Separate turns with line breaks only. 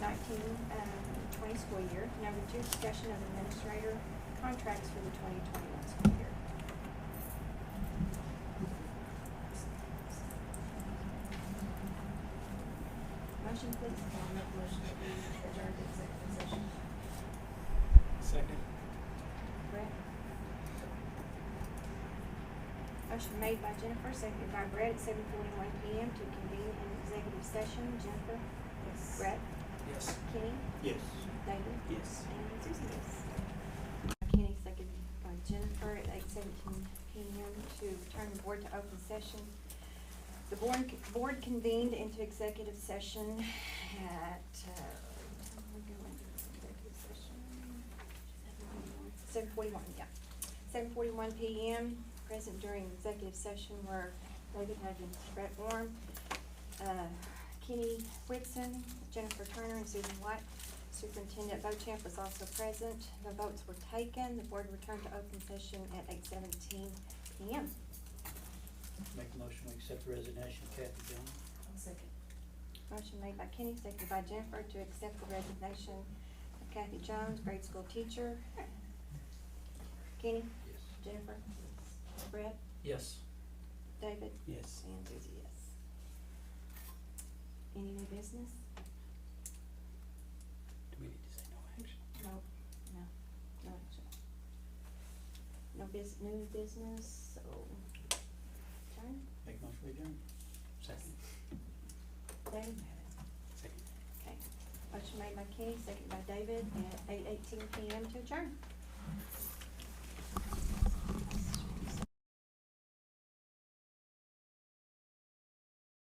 um, school year. Number two, discussion of administrator contracts for the twenty twenty-one school year. Motion please.
I'll make a motion that we adjourn to executive session.
Second.
Brett. Motion made by Jennifer, seconded by Brett at seven forty-one PM to convene an executive session. Jennifer,
Yes.
Brett,
Yes.
Kenny,
Yes.
David.
Yes.
And Susie, yes. Kenny, seconded by Jennifer at eight seventeen PM to return the board to open session. The board, board convened into executive session at, uh, we're going to executive session. Seven forty-one, yeah. Seven forty-one PM, present during executive session were David Huggins, Brett Warm, uh, Kenny Whitson, Jennifer Turner, and Susan White. Superintendent Bochamp was also present. The votes were taken. The board returned to open session at eight seventeen PM.
Make a motion, we accept the resignation of Kathy Jones.
I'll second.
Motion made by Kenny, seconded by Jennifer to accept the resignation of Kathy Jones, grade school teacher. Kenny,
Yes.
Jennifer, Brett,
Yes.
David,
Yes.
and Susie, yes. Any new business?
Do we need to say no action?
No, no, no action. No bus, new business, so, turn,
Make a motion, we adjourn.
Second.
David?
Second.
Okay, motion made by Kenny, second by David, at eight eighteen PM to adjourn.